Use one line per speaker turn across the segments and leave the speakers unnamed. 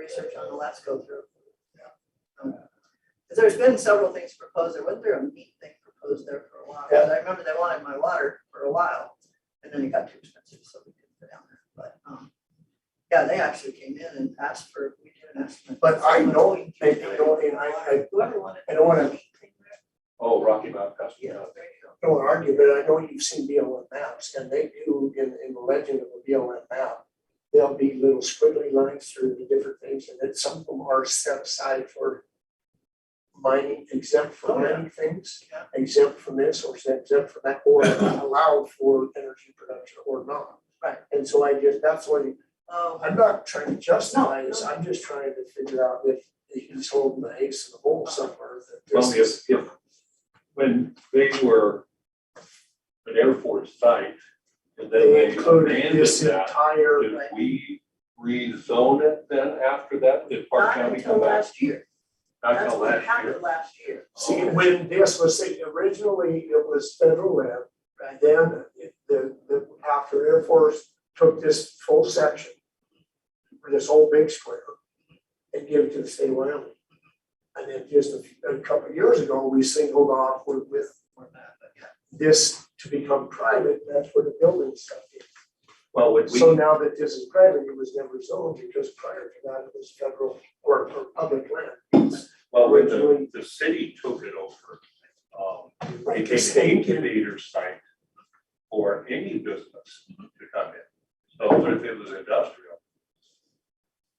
research on the last go through. Because there's been several things proposed, there wasn't there a meat thing proposed there for a while, 'Cause I remember they wanted my water for a while, and then it got too expensive, so we didn't go down there, but, um. Yeah, they actually came in and asked for, we did an estimate.
But I know, they they don't, and I, I
Whoever wanted.
I don't wanna-
meat thing there,
Oh, Rocky Mountain
Yeah,
Custom House.
there you go. Um,
don't argue, but I know you've seen BLM maps, and they do, in, in the legend of the BLM map, there'll be little squiggly lines through the different things, and then some of them are set aside for mining, exempt
Oh,
from
yeah.
mining things,
Yeah.
exempt from this, or exempt from that, or allowed for energy production or not.
Right.
And so I just, that's what
Oh,
I'm not trying to justify this, I'm just trying to figure out if he's holding the ace in the hole somewhere that
Well,
this
if,
is.
if, when they were an Air Force site, and then
They
they
included
abandoned
this
that,
entire,
did we rezone it then after that? Did Park
not
County
until
come back?
last year,
Not
that's
until
what
last year.
happened last year,
see, when this was, see, originally it was federal land,
right?
and then it- the, the, after Air Force took this full section, this whole big square, and gave it to the state of Wyoming. And then just a, few- a couple of years ago, we singled off with, with
Or not, but yeah.
this to become private, that's where the building stuff is.
Well, would
So
we,
now that this is private, it was never zoned because prior to that, it was federal or or public land.
well, when the,
originally-
the city took it over, um,
Right,
it
the
became
state can-
incubator site for any business to come in. So if it was industrial,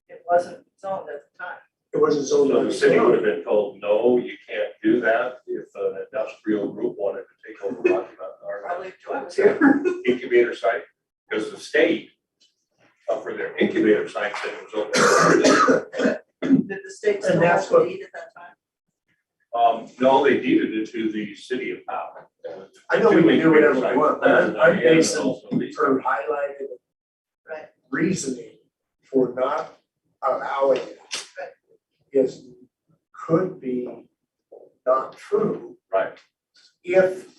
It wasn't zoned at the time.
It wasn't zoned.
So
under
the city
county.
would have been told, no, you can't do that if an industrial group wanted to take over Rocky Mountain, our
Probably Joy was here.
incubator site, because the state uh, for their incubator site that was open.
Did the state still
And that's
have to
what-
deed at that time?
Um, no, they deeded it to the city of Powell. uh,
I know we can do whatever we want, but I'm, I'm basing
basically.
her highlighted
Right.
reasoning for not allowing it. Is, could be not true
Right,
if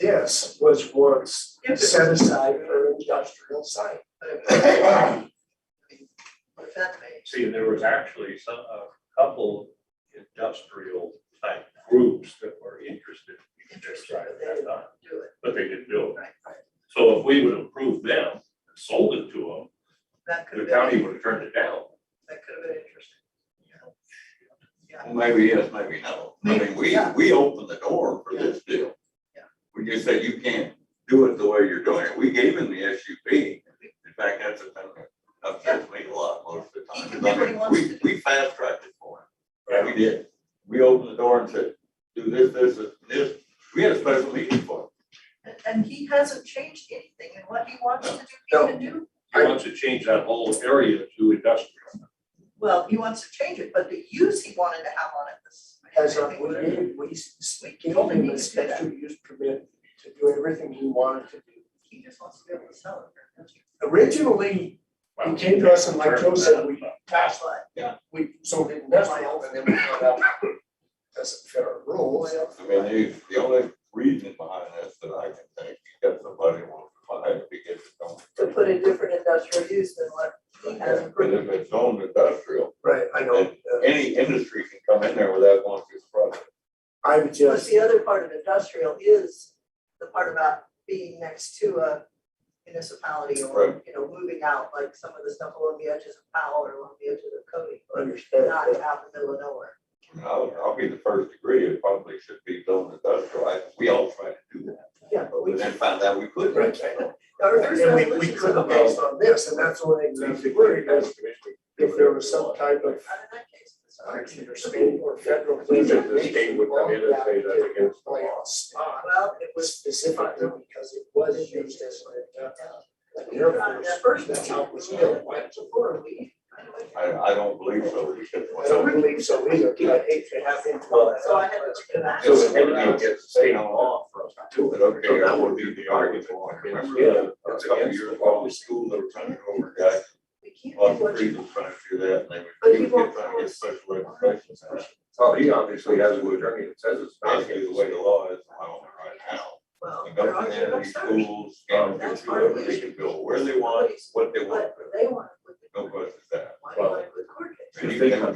this was once
If it-
set aside for an industrial site.
But it was- I mean, What if that made?
see, there was actually some, a couple industrial type groups that were interested in their site at that time.
do it,
but they didn't do it.
right, right,
So if we would have approved them, and sold it to
that could
them,
have
the county
been,
would have turned it down.
that could have been interesting.
Well, Maybe yes, maybe no. I mean, we,
Yeah.
we opened the door for this deal.
Yeah.
We just said you can't do it the way you're doing it. We gave him the SUP. In fact, that's a, upsets me a lot most of the
He
time.
can
'cause I
do what he
mean,
wants
we-
to do.
We fast tracked it for him. Yeah, we did. We opened the door and said, do this, this, and this. We had a special meeting for
And, and he hasn't changed anything in what he wants to do, he
No.
can do,
He wants to change that whole area to industrial.
well, he wants to change it, but the use he wanted to have on it is.
As a, we did, we, s- we gave him a special use permit to do everything he wanted to do.
He just wants to be able to sell it. for him.
Originally,
Well,
came to us and like Joe said, we-
but
that's why,
Yeah.
we, so we didn't, that's why, and then we found out doesn't fit our rules.
it. I mean, the, the only reason behind this that I can think, you got somebody who wants to buy it because it's on.
To put a different industrial use than what he has
Yeah, But
approved.
if it's owned industrial,
Right, I know, uh,
any industry can come in there without going through the process.
I would
Plus,
just,
the other part of industrial is the part about being next to a municipality or, you know, moving out, like some of the stuff along the edges of Powell or along the edges of Cody.
understand,
Not
that.
out in the middle of nowhere.
I mean, I'll, I'll be the first to agree, it probably should be zoned industrial, I, we all tried to do that,
Yeah, but we
but then found out we couldn't.
Right, I know.
Our first
And we, we
resolution's
could have
about-
based on this, and that's what they
basically,
were,
the
because
county commission did
if there
whatever
was
they
some
wanted.
type
Not
of
in that case, it's not.
action or state or federal.
Because the state would come in and say that's against the law.
Spot
Well, it
was
was,
specifically because it was used as a, like uh, an
you
air
got uh,
force.
that first,
That's how it was
resolution,
built.
went to four, we, kind of like-
I, I don't believe so, because.
I don't believe so either, but I hate to have him.
So I had to look at that.
So
So
it
it
would
would be against the state law for us to do
But okay, that would be the argument.
Yeah.
That's a couple years ago, the school, they were trying to go over guys,
we can't
a lot
do
of
what you.
trees were trying to do that, and they would.
But he
would get
won't
trying to get special education.
Well,
Well, he obviously has an attorney that says it's not
Basically, the way the law is, I don't know right now.
well. they're
The government
already
entities,
upstairs.
schools, governments, whoever, they can go where they want, what they want,
But they want it with
no
the,
questions asked.
why do you want it with court case?
If they come